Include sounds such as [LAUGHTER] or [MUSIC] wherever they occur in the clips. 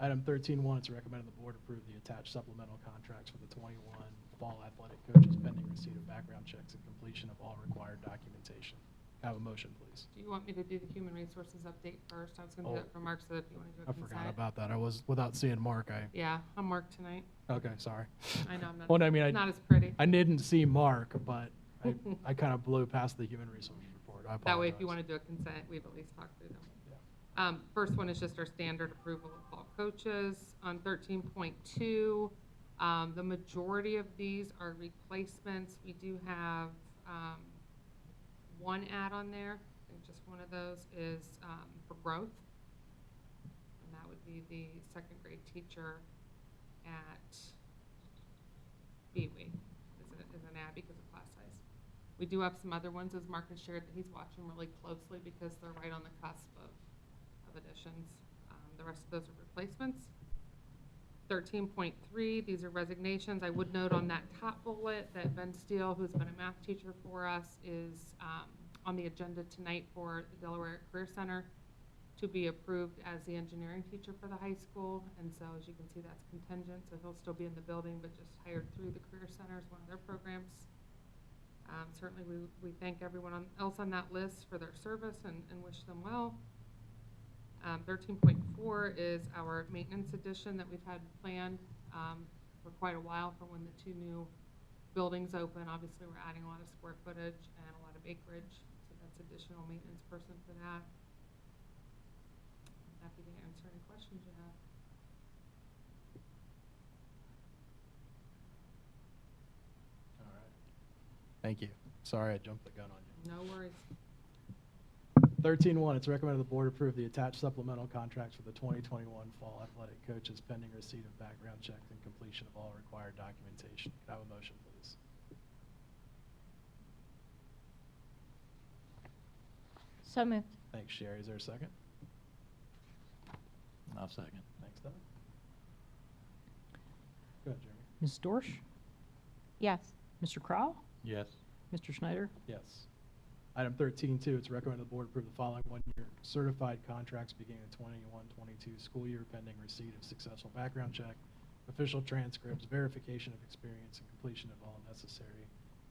Item 13.1, it's recommended the board approve the attached supplemental contracts for the 21 fall athletic coaches pending receipt of background checks and completion of all required documentation. Can I Have a motion, please. Do you want me to do the human resources update first? I was gonna do Oh. that for Mark, so if you wanna do I it forgot consent. about that. I was, without seeing Mark, I, Yeah, I'm Mark tonight. okay, sorry. I know, I'm [LAUGHS] not. Well, I mean, I- Not as pretty. I didn't see Mark, but [LAUGHS] I, I kind of blew past the human resources report. I apologize. That way, if you wanna do a consent, we've at least talked through them. Um, first one is just our standard approval of all coaches. On thirteen point two, um, the majority of these are replacements. We do have, um, one add on there, I think just one of those is, um, for growth. And that would be the second grade teacher at Beewee, is an, is an add because of class size. We do have some other ones, as Mark has shared, that he's watching really closely because they're right on the cusp of, of additions. Um, The rest of those are replacements. Thirteen point three, these are resignations. I would note on that top bullet that Ben Steele, who's been a math teacher for us, is um, on the agenda tonight for the Delaware Career Center to be approved as the engineering teacher for the high school. And so, as you can see, that's contingent, so he'll still be in the building, but just hired through the Career Center as one of their programs. Um, Certainly, we, we thank everyone on- else on that list for their service and, and wish them well. Um, 13.4 is our maintenance addition that we've had planned um, for quite a while for when the two new buildings open. Obviously, we're adding a lot of square footage and a lot of acreage, so that's additional maintenance person for that. I'm Happy to answer any questions you have. All right. Thank you. Sorry, I jumped the gun on you. No worries. 13.1, it's recommended the board approve the attached supplemental contracts for the 2021 fall athletic coaches pending receipt of background checks and completion of all required documentation. Could I have a motion, please? So moved. Thanks, Sherry. Is there a second? I'll second. Thanks, Doug. Go ahead, Jeremy. Ms. Dorsch, Yes. Mr. Crowe, Yes. Mr. Schneider, Yes. Item 13.2, it's recommended the board approve the following one-year certified contracts beginning the 21-22 school year pending receipt of successful background check, official transcripts, verification of experience, and completion of all necessary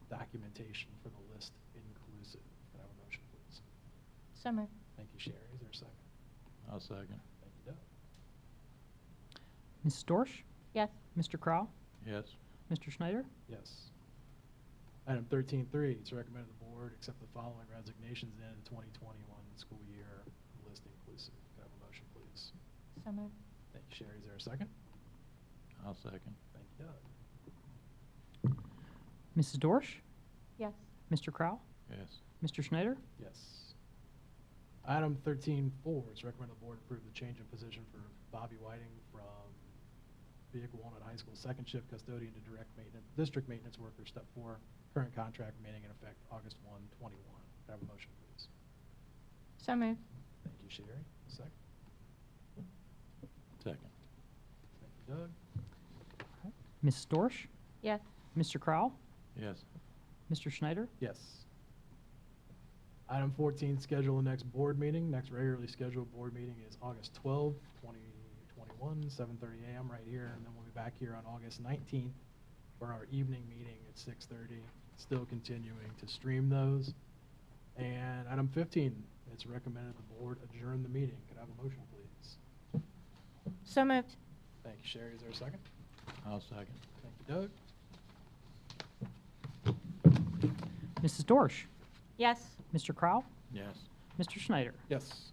documentation for the list inclusive. Can I have a motion, please? So moved. Thank you, Sherry. Is there a second? I'll second. Thank you, Doug. Ms. Dorsch, Yes. Mr. Crowe, Yes. Mr. Schneider, Yes. Item thirteen three, it's recommended the board accept the following resignations in the 2021 school year list inclusive. Can I have a motion, please? So moved. Thank you, Sherry. Is there a second? I'll second. Thank you, Doug. Mrs. Dorsch, Yes. Mr. Crowe, Yes. Mr. Schneider, Yes. Item thirteen four, it's recommended the board approve the change in position for Bobby Whiting from Vehicle Walnut High School second shift custodian to direct maintenance, district maintenance worker, step four, current contract remaining in effect August 1, 21. Can I have a motion, please? So moved. Thank you, Sherry. Second. Second. Thank you, Doug. Mrs. Dorsch, Yes. Mr. Crowe, Yes. Mr. Schneider, Yes. Item 14, schedule the next board meeting. Next regularly scheduled board meeting is August 12, 2021, 7:30 a.m. right here, and then we'll be back here on August 19th for our evening meeting at 6:30, still continuing to stream those. And item 15, it's recommended the board adjourn the meeting. Could I have a motion, please? So moved. Thank you, Sherry. Is there a second? I'll second. Thank you, Doug. Mrs. Dorsch, Yes. Mr. Crowe, Yes. Mr. Schneider. Yes.